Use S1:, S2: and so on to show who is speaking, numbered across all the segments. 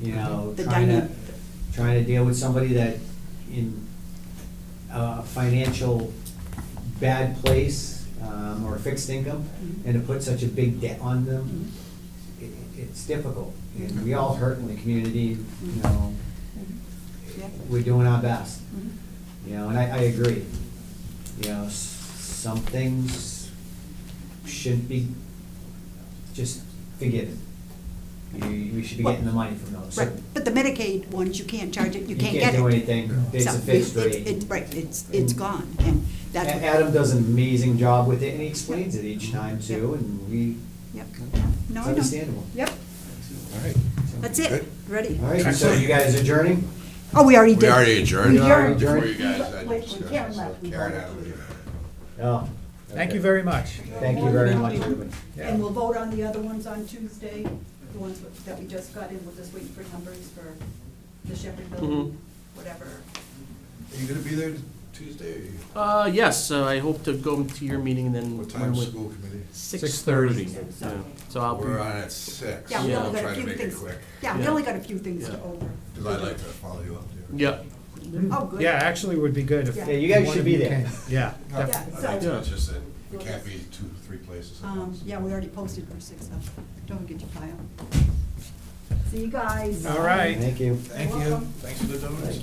S1: you know,
S2: The
S1: trying to,
S2: dyna-
S1: trying to deal with somebody that in a financial bad place, um, or fixed income,
S2: Mhm.
S1: and to put such a big debt on them,
S2: Mm-hmm.
S1: it, it's difficult. And we all hurt in the community, you know,
S2: Mm-hmm. Yeah.
S1: we're doing our best,
S2: Mhm.
S1: you know, and I, I agree. You know, s- some things shouldn't be just forgiven. You, we should be getting the money from those.
S2: Right, but the Medicaid ones, you can't charge it, you can't get it.
S1: do anything, it's
S2: So,
S1: a fixed
S2: it's-
S1: rate.
S2: it's- Right, it's, it's
S1: Mm.
S2: gone, and
S1: A-
S2: that's.
S1: Adam does an amazing job with it, and he explains it each time too, and we,
S2: Yep, no,
S1: it's
S2: I know.
S1: understandable.
S2: Yep,
S3: All right.
S2: that's it,
S3: Good.
S2: ready.
S1: All right, so you guys adjourning?
S2: Oh, we already did.
S3: We already adjourned.
S1: We already
S3: Before
S1: adjourned.
S3: you guys, I
S2: Wait,
S3: just-
S2: when Karen left, we
S3: Karen,
S2: voted.
S3: I believe.
S1: Oh.
S4: Thank
S1: okay.
S4: you very much.
S1: Thank you very much, everybody.
S4: Yeah.
S2: And we'll vote on the other ones on Tuesday, the ones with- that we just got in, we'll just wait for numbers for the Shepherd building,
S3: Mm-hmm.
S2: whatever.
S3: Are you gonna be there Tuesday? or you-
S5: Uh, yes, so I hope to go to your meeting and then.
S3: What time's school committee?
S5: Six thirty.
S2: So-
S5: So I'll be,
S3: We're on at six.
S2: Yeah, we
S5: Yeah.
S2: only
S3: I'll
S2: got a
S3: try to
S2: few
S3: make it
S2: things.
S3: quick,
S2: Yeah, we
S5: Yeah.
S2: only got a few things to
S5: Yeah.
S2: over.
S3: because I'd like to follow you up there.
S5: yeah,
S2: Oh, good.
S4: Yeah, actually would be good if.
S2: Yeah.
S1: Yeah, you guys
S4: one
S1: should
S4: of
S1: be
S4: you
S1: there.
S4: came. Yeah.
S3: No,
S4: def-
S2: Yeah,
S3: I
S2: so-
S3: like to, it's just that we
S2: We'll
S3: can't
S2: just-
S3: be two, three places at
S2: Um,
S3: once.
S2: yeah, we already posted for six, so don't forget your pile. See you guys.
S4: All right.
S1: Thank you.
S3: Thank you,
S2: Welcome.
S3: thanks for the donuts.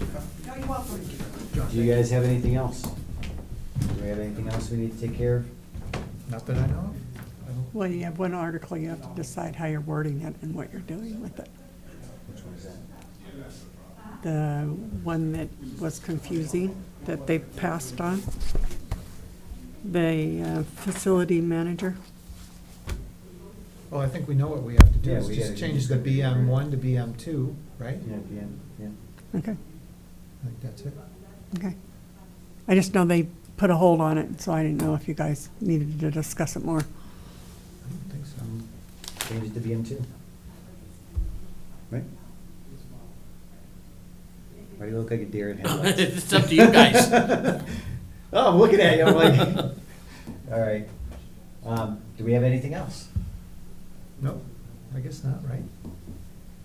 S2: No, you're welcome.
S1: Do you guys have anything else? Do we have anything else we need to take care of?
S4: Not that I know of.
S6: Well, you have one article, you have to decide how you're wording it and what you're doing with it.
S1: Which one is that?
S6: The one that was confusing, that they passed on, the uh, facility manager.
S4: Well, oh, I think we know what we have to do,
S1: Yeah,
S4: is
S1: we
S4: just
S1: gotta-
S4: change the BM one to BM two, right?
S1: Yeah, at the end, yeah.
S6: Okay,
S4: I think that's it.
S6: okay. I just know they put a hold on it, so I didn't know if you guys needed to discuss it more.
S4: I don't think so.
S1: Um, Change it to BM two. Right? Why do you look like a deer in headlights?
S5: it's up to you guys.
S1: Oh, I'm looking at you, I'm like, all right. Um, do we have anything else?
S4: No, I guess not, right?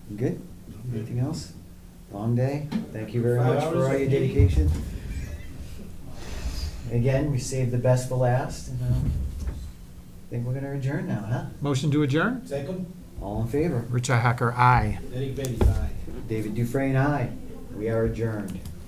S1: You Good? Anything else? Long day? Thank you very
S3: Five
S1: much
S3: hours
S1: for all
S3: of
S1: your
S3: meeting.
S1: dedication. Again, we saved the best for last, and, um, I think we're gonna adjourn now, huh?
S4: Motion to adjourn?
S3: Second,
S1: All in favor?
S4: Richi Hacker, aye.
S3: Derek Bailey's aye.
S1: David Dufresne, aye. We are adjourned.